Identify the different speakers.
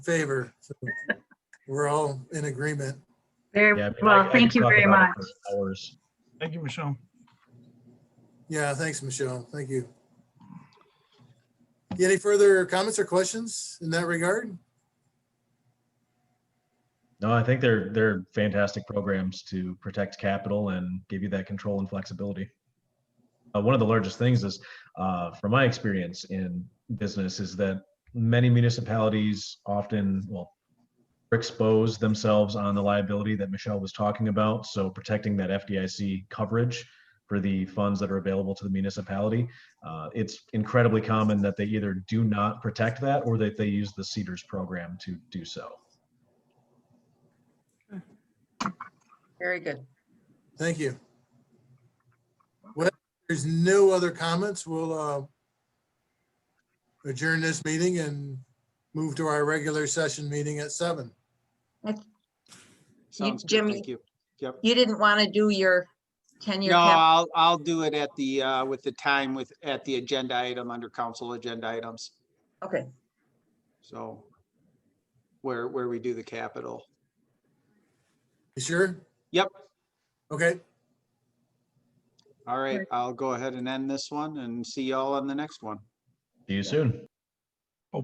Speaker 1: favor. So We're all in agreement.
Speaker 2: Very
Speaker 3: Yeah, I mean, I- I
Speaker 2: well,
Speaker 3: could
Speaker 2: thank you
Speaker 3: talk
Speaker 2: very much.
Speaker 3: about it for Hours.
Speaker 4: Thank you, Michelle.
Speaker 1: Yeah, thanks, Michelle. Thank you. Any further comments or questions in that regard?
Speaker 3: No, I think they're, they're fantastic programs to protect capital and give you that control and flexibility. Uh, one of the largest things is, uh, from my experience in business, is that many municipalities often, well, expose themselves on the liability that Michelle was talking about. So protecting that FDIC coverage for the funds that are available to the municipality. Uh, it's incredibly common that they either do not protect that or that they use the Cedars program to do so.
Speaker 5: Very good.
Speaker 1: Thank you. Well, if there's no other comments. We'll uh, adjourn this meeting and move to our regular session meeting at seven.
Speaker 6: Sounds good,
Speaker 5: Jimmy-
Speaker 6: Thank you. Yep.
Speaker 5: You didn't want to do your tenure
Speaker 6: No,
Speaker 5: cap.
Speaker 6: I'll, I'll do it at the, uh, with the time with, at the agenda item under council agenda items.
Speaker 5: Okay,
Speaker 6: So where, where we do the capital.
Speaker 1: You sure?
Speaker 6: Yep.
Speaker 1: Okay,
Speaker 6: All right, I'll go ahead and end this one and see y'all on the next one.
Speaker 3: See you soon.